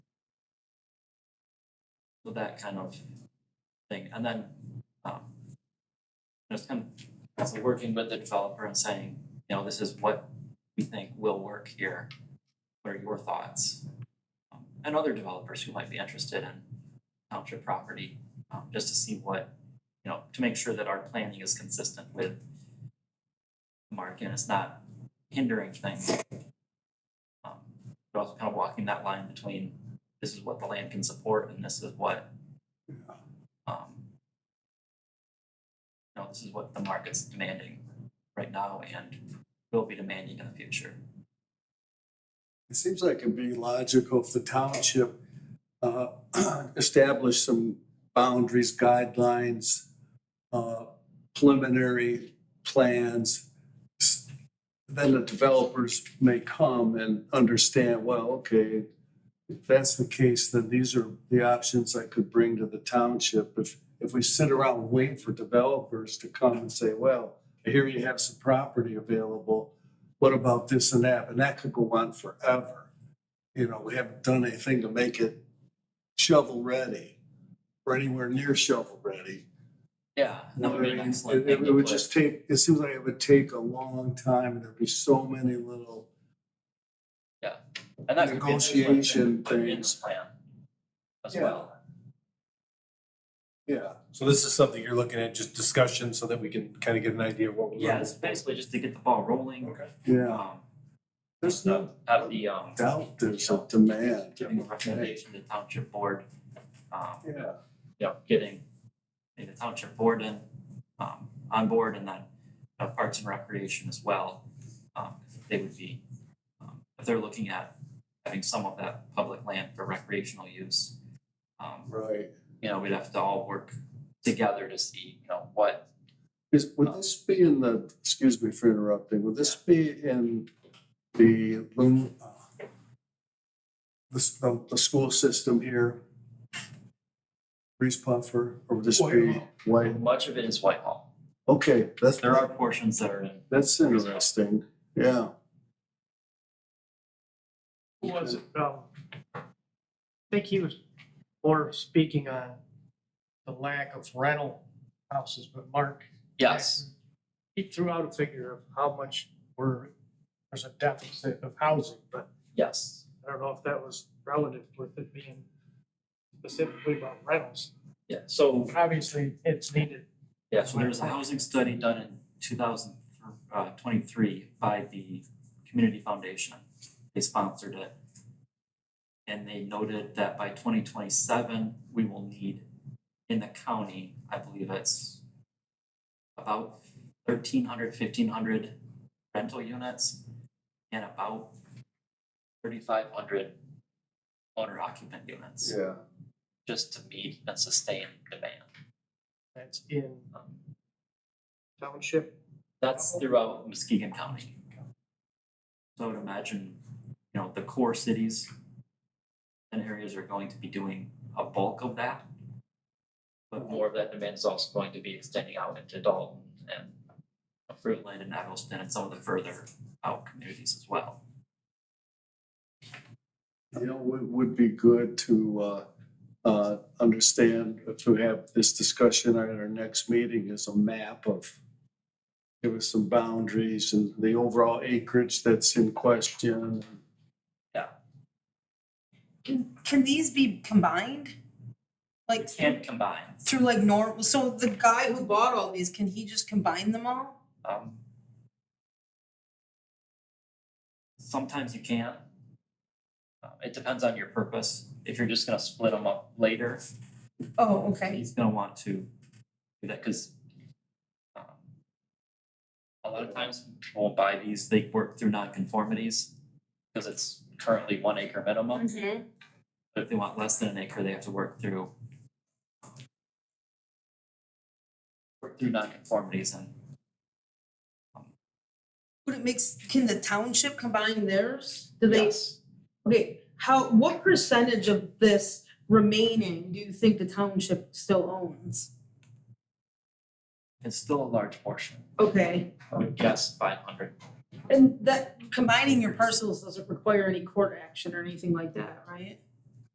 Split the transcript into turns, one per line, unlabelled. with that kind of thing. And then, um, just kind of so working with the developer and saying, you know, this is what we think will work here. What are your thoughts? Um, And other developers who might be interested in township property, um, just to see what, you know, to make sure that our planning is consistent with the market and it's not hindering things. Um, But also kind of walking that line between this is what the land can support and this is what um no, this is what the market's demanding right now and will be demanding in the future.
It seems like it'd be logical if the township uh, established some boundaries, guidelines, uh, preliminary plans. Then the developers may come and understand, well, okay, if that's the case, then these are the options I could bring to the township. If, if we sit around and wait for developers to come and say, well, I hear you have some property available what about this and that? And that could go on forever. You know, we haven't done anything to make it shovel ready or anywhere near shovel ready.
Yeah, Uh, that would be an
I mean,
excellent
it- it-
thing
It
to
would
put.
just take, it seems like it would take a long time and there'd be so many little,
And that could be an excellent thing
negotiation
to put in
things.
the plan as
Yeah.
well.
yeah.
So this is something you're looking at, just discussion so that we can kind of get an idea of what we're.
Yeah, it's basically just to get the ball rolling.
Okay.
Yeah,
Um
there's no
out of the um
doubt there's a demand.
giving the recommendation to the township board, um
Yeah,
yeah, getting the township board in, um, on board and then uh, Parks and Recreation as well. Um, they would be, um, if they're looking at having some of that public land for recreational use. Um,
right.
you know, we'd have to all work together to see, you know, what,
Is,
Uh,
would this be in the, excuse me for interrupting, would this be in the, loom- uh, the, s- the, the school system here? Reese Puffer, or would this be White?
much of it is Whitehall.
Okay, that's,
There are portions that are in,
that's interesting, yeah.
Who was it? Um, I think he was more speaking on the lack of rental houses, but Mark.
yes,
He threw out a figure of how much were, there's a deficit of housing, but
yes,
I don't know if that was relative with it being specifically about rentals.
yeah, so,
Obviously, it's needed.
yeah, so there was a housing study done in two thousand, uh, twenty-three by the Community Foundation. They sponsored it. And they noted that by twenty twenty-seven, we will need in the county, I believe it's about 1,300, 1,500 rental units and about thirty-five hundred owner occupant units,
Yeah.
just to meet and sustain demand.
That's in
Um,
township.
That's throughout Muskegon County. So I would imagine, you know, the core cities and areas are going to be doing a bulk of that. But more of that demand is also going to be extending out into Dalton and Fruitland and Evanston and some of the further out communities as well.
You know, it would be good to uh, uh, understand, to have this discussion at our next meeting is a map of, give us some boundaries and the overall acreage that's in question.
Can, can these be combined? Like
And combine,
through like normal, so the guy who bought all these, can he just combine them all?
um. Sometimes you can. Um, It depends on your purpose. If you're just gonna split them up later,
Oh, okay.
he's gonna want to do that, cause um, a lot of times people won't buy these, they work through nonconformities, cause it's currently one acre minimum, but if they want less than an acre, they have to work through um, work through nonconformities and
Would it makes, can the township combine theirs? Do they,
yes,
okay, how, what percentage of this remaining do you think the township still owns?
it's still a large portion,
Okay,
I would guess five hundred.
and that combining your parcels doesn't require any court action or anything like that, right?